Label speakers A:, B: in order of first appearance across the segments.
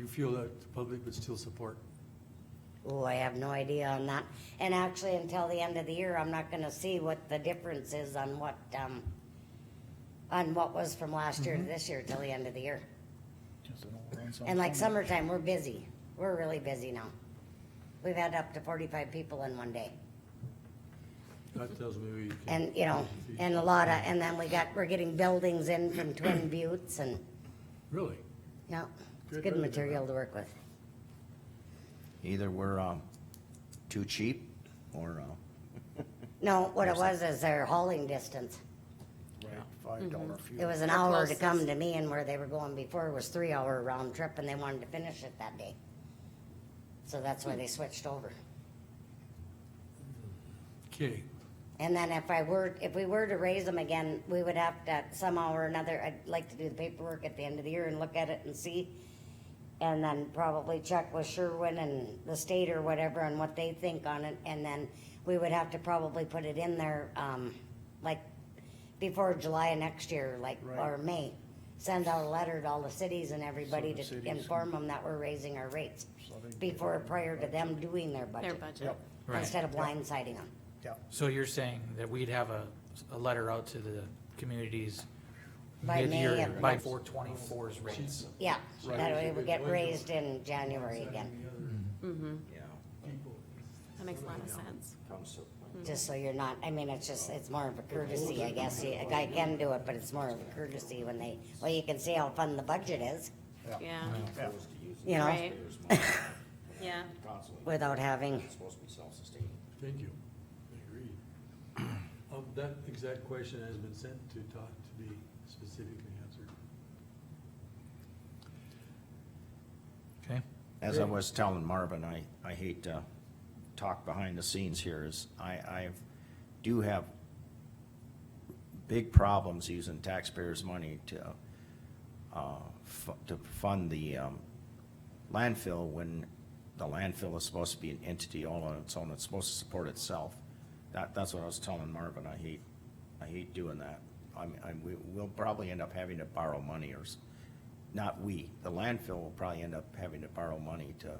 A: feel that the public would still support?
B: Ooh, I have no idea on that. And actually, until the end of the year, I'm not gonna see what the difference is on what, um, on what was from last year to this year till the end of the year.
C: Just an overrun
B: And like
C: sometime.
B: summertime, we're busy. We're really busy now. We've had up to forty-five people in one day.
A: That tells me we. can-
B: And, you know, and a lot of, and then we got, we're getting buildings in from Twin Buttes and,
A: Really?
B: you know, it's
A: Good
B: good
A: revenue.
B: material to work with.
D: Either we're, um, too cheap or, uh,
B: No, what it was is their hauling distance.
D: five dollar
B: It
D: fuel.
B: was an
E: How
B: hour
E: close
B: to
E: is-
B: come to me and where they were going before was three hour round trip and they wanted to finish it that day. So that's
E: Hmm.
B: why they switched over.
A: Okay,
B: And then if I were, if we were to raise them again, we would have to somehow or another, I'd like to do the paperwork at the end of the year and look at it and see. And then probably check with Sherwin and the state or whatever on what they think on it, and then we would have to probably put it in there, um, like, before July of next year, like, or May. Send out a letter to all the cities and everybody
C: So the
B: to
C: cities-
B: inform them that we're raising our rates
C: So they-
B: before, prior to them doing their
E: Their
B: budget,
E: budget.
C: Yep,
B: instead of blindsiding them.
C: yep.
F: So you're saying that we'd have a, a letter out to the communities
B: By May
F: mid-year,
B: of
F: by
B: next-
F: four twenty-four's rates?
B: Yeah,
A: Right.
B: that way we
A: Good
B: get
A: point.
B: raised in January again,
D: Yeah,
E: That makes a lot of sense.
D: comes to,
B: just so you're not, I mean, it's just, it's more of a courtesy, I guess, a guy can do it, but it's more of a courtesy when they, well, you can see how fun the budget is,
E: Yeah,
C: Yeah.
B: you know,
E: right, yeah.
B: without having,
D: supposed to be self-sustaining.
A: thank you. I agree. Um, that exact question has been sent to Todd to be specifically answered.
F: Okay,
D: As I was telling Marvin, I, I hate to talk behind the scenes here, is I, I do have big problems using taxpayers' money to, uh, fu- to fund the, um, landfill when the landfill is supposed to be an entity all on its own, it's supposed to support itself. That, that's what I was telling Marvin, I hate, I hate doing that. I'm, I'm, we, we'll probably end up having to borrow money or, s- not we, the landfill will probably end up having to borrow money to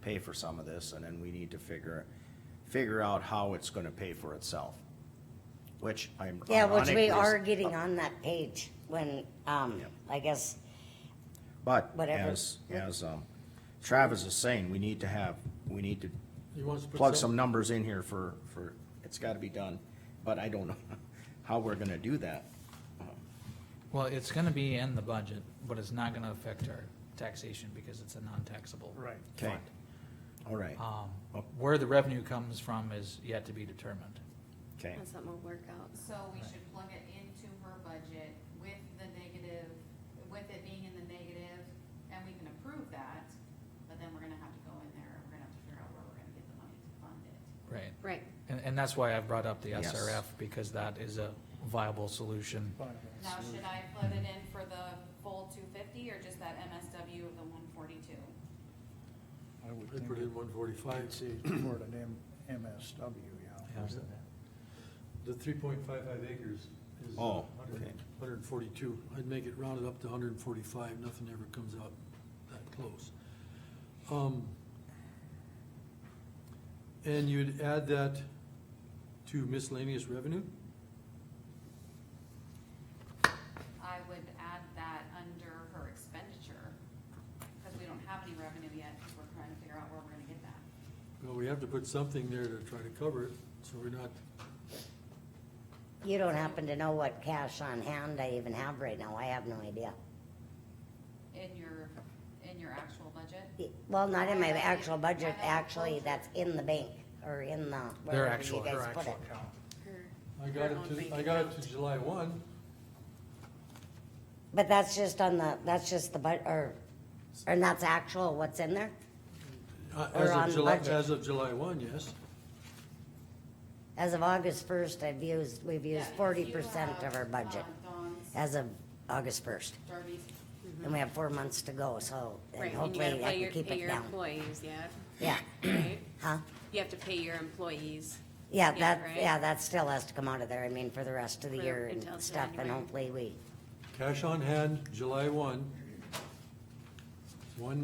D: pay for some of this, and then we need to figure, figure out how it's gonna pay for itself. Which I'm.
B: yeah, which
D: ironically
B: we
D: is-
B: are getting on that page when, um,
D: Yep.
B: I guess,
D: But
B: whatever.
D: as, as, um, Travis is saying, we need to have, we need to
A: He wants to put.
D: plug some numbers in here for, for, it's gotta be done, but I don't know how we're gonna do that. Um,
F: well, it's gonna be in the budget, but it's not gonna affect our taxation because it's a non-taxable.
C: Right.
D: Okay, all right,
A: Uh,
F: Um,
D: Oh.
F: where the revenue comes from is yet to be determined.
D: okay,
E: That's something we'll work out.
G: So we should plug it into her budget with the negative, with it being in the negative, and we can approve that, but then we're gonna have to go in there, and we're gonna have to figure out where we're gonna get the money to fund it.
F: Right.
E: Right,
F: And, and that's why I've brought up the
D: Yes.
F: SRF, because that is a viable solution.
C: Fine.
G: Now, should I plug it in for the full two fifty, or just that MSW of the one forty-two?
C: I would
A: I
C: think
A: put in one
C: I'd
A: forty-five,
C: say it's more than M, MSW, yeah.
F: Yeah.
A: the three point five five acres is.
D: Oh, okay.
A: Hundred and forty-two, I'd make it rounded up to hundred and forty-five, nothing ever comes out that close. Um, And you'd add that to miscellaneous revenue?
G: I would add that under her expenditure, cause we don't have any revenue yet, we we're trying to figure out where we're gonna get that.
A: Well, we have to put something there to try to cover it, so we're not,
B: you don't happen to know what cash on hand I even have right now, I have no idea.
G: In your, in your actual budget?
B: Well, not in my actual budget, actually, that's in the bank, or in the,
F: Their
B: wherever
F: actual,
B: you
F: their
B: guys put
F: actual
B: it.
F: account.
E: her,
A: I got
E: Her own
A: it
E: bank
A: to, I got it
E: account.
A: to July one,
B: But that's just on the, that's just the, bud or, and that's actual what's in there?
A: uh,
B: Or
A: as
B: on
A: of July,
B: budget.
A: as of July one, yes.
B: As of August first, I've used, we've
G: Yeah,
B: used
G: if
B: forty
G: you
B: percent of
G: have,
B: our budget,
G: uh, Dawn's,
B: as of August first.
G: Darby's,
B: And we have four months to go, so, and
E: Mm-hmm. right, and you gotta
B: hopefully I
E: pay your,
B: can keep
E: pay
B: it
E: your
B: down.
E: employees, yeah,
B: Yeah,
E: right?
B: huh?
E: You have to pay your employees.
B: Yeah,
E: Yeah,
B: that,
E: right.
B: yeah, that still has to come out of there, I mean, for the rest of the
E: For-
B: year and
E: until
B: stuff, and
E: January.
B: hopefully we
A: Cash on hand, July one. One